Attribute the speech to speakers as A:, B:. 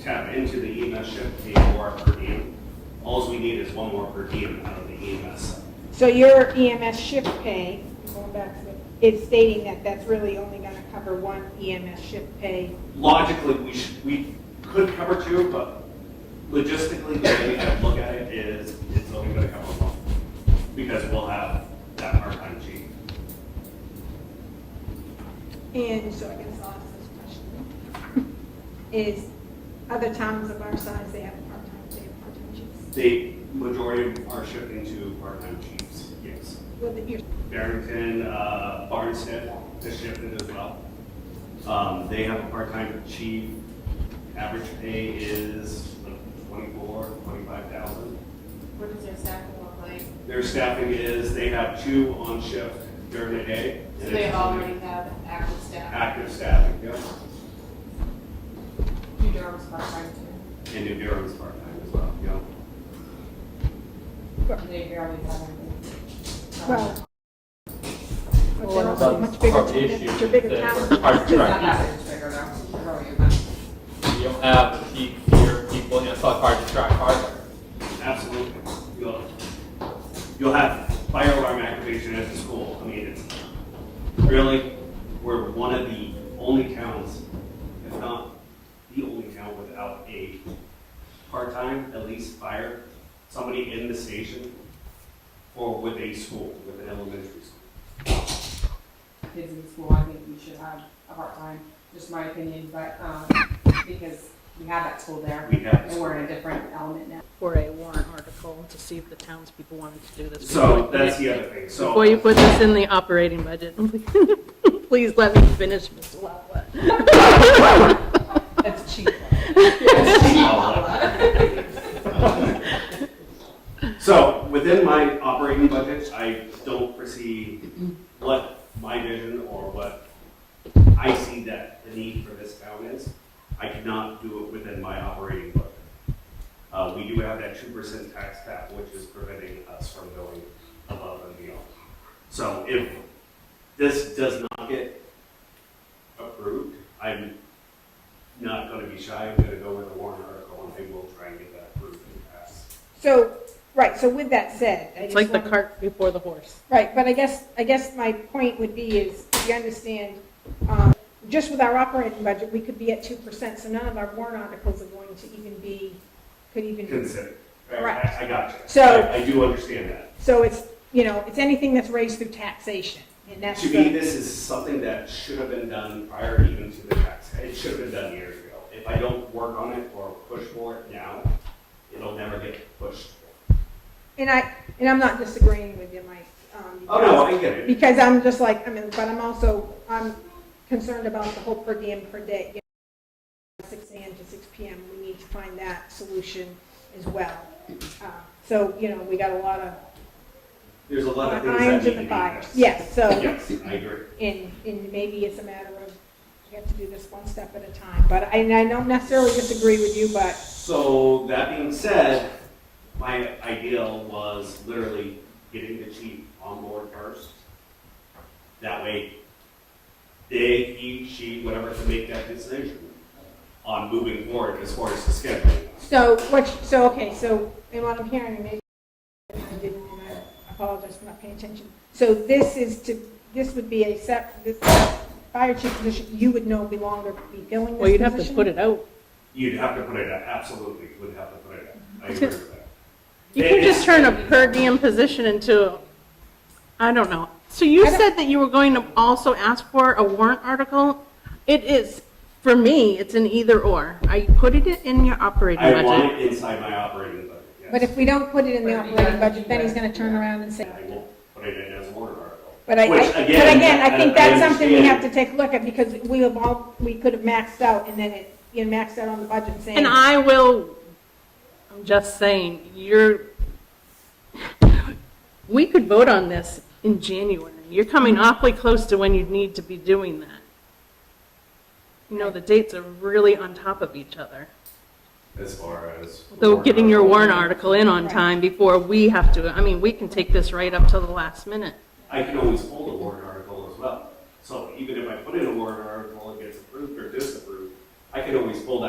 A: tap into the EMS shift, pay more per diem. Alls we need is one more per diem out of the E EMS side.
B: So your EMS shift pay, going back to, the- is stating that that's really only going to cover one EMS shift pay.
A: logically, we should, we could cover two, but logistically, the way we have to look at it is, it's only gonna cover one. Because we'll have that part-time chief.
B: And so I guess I'll ask this question. Is other towns of our size, they have part-time, they have part-time chiefs?
A: The majority are shifting to part-time chiefs, yes.
B: Well, that you're-
A: Barrington, uh, Barnstead has shifted as well. Um, they have a part-time chief, average pay is like twenty-four, twenty-five thousand.
C: What does their staffing look like?
A: Their staffing is, they have two on shift during the day.
C: So they already have active staff.
A: Active staffing, yep.
C: New Durham's part-time too.
A: And New Durham's part-time as well, yep.
C: They barely have anything.
B: Well, but they're
C: Well,
B: also
D: that's
B: much bigger,
D: part of the
B: towns-
D: issue,
B: they're bigger
D: that
B: towns.
D: we're part-
C: It's not
D: right.
C: that big figure out. It's probably about-
D: You don't have the peak fear of people, you know, it's not hard to track hardware.
A: Absolutely. You'll, you'll have fire alarm activation at the school. I mean, it's really, we're one of the only towns, if not the only town without a part-time, at least fire, somebody in the station or with a school, with an elementary school.
C: kids in school, I think we should have a part-time, just my opinion, but, um, because we have that school there,
A: We have a
C: and we're in a different element now.
E: for a warrant article to see if the townspeople wanted to do this.
A: So that's the other thing. So.
E: Before you put this in the operating budget, please let me finish, Mr. Lala.
C: That's cheap.
A: So, within my operating budget, I don't foresee what my vision or what I see that the need for this town is. I cannot do it within my operating budget. Uh, we do have that two percent tax cap, which is preventing us from going above and beyond. So if this does not get approved, I'm not gonna be shy, I'm gonna go with a warrant article, and I will try and get that approved and passed.
B: So, right, so with that said, I just
E: It's like the
B: wanna-
E: cart before the horse.
B: Right, but I guess, I guess my point would be is, you understand, um, just with our operating budget, we could be at two percent, so none of our warrant articles are going to even be, could even,
A: Consider,
B: Correct.
A: I, I got you.
B: So-
A: I- I do understand that.
B: so it's, you know, it's anything that's raised through taxation, and that's
A: To me,
B: the,
A: this is something that should have been done prior even to the tax, it should have been done years ago. If I don't work on it or push for it now, it'll never get pushed.
B: and I, and I'm not disagreeing with you, Mike. um,
A: Oh, no, I get it,
B: Because I'm just like, I mean, but I'm also, I'm concerned about the whole per diem per day. you know, Six AM to six PM, we need to find that solution as well. Uh, So, you know, we got a lot of
A: there's a lot of things that need
B: irons
A: to
B: in
A: be
B: the fire.
A: addressed.
B: Yes, so,
A: Yes, I agree.
B: and, and maybe it's a matter of, we have to do this one step at a time. But I, and I don't necessarily disagree with you, but
A: So, that being said, my ideal was literally getting the chief on board first. That way, they, he, she, whatever, can make that decision on moving forward as far as the schedule.
B: So what, so, okay, so, and what I'm hearing, maybe I didn't, and I apologize for not paying attention. So this is to, this would be a sep, this fire chief position, you would no longer be filling this position?
E: Well, you'd have to put it out.
A: You'd have to put it out, absolutely, would have to put it out. I agree with that.
E: You could just turn a per diem position into, I don't know. So you
B: I don't-
E: said that you were going to also ask for a warrant article? It is, for me, it's an either or. Are you putting it in your operating
A: I want
E: budget?
A: it inside my operating budget, yes.
B: But if we don't put it in the
C: But you
B: operating
C: gotta-
B: budget, then he's gonna turn around and say.
A: I won't put it in as a warrant article.
B: But I, I-
A: Which,
B: but again, I think that's something we
A: understand.
B: have to take a look at, because we have all, we could have maxed out, and then it, you know, maxed out on the budget saying.
E: And I will, I'm just saying, you're, we could vote on this in January. You're coming awfully close to when you need to be doing that. You know, the dates are really on top of each other.
A: As far as.
E: So getting your
A: warrant
E: warrant article in on time before we have to, I mean, we can take this right up till the last minute.
A: article, I can always hold a warrant article as well. So even if I put in a warrant article, and it gets approved or disapproved, I can always pull that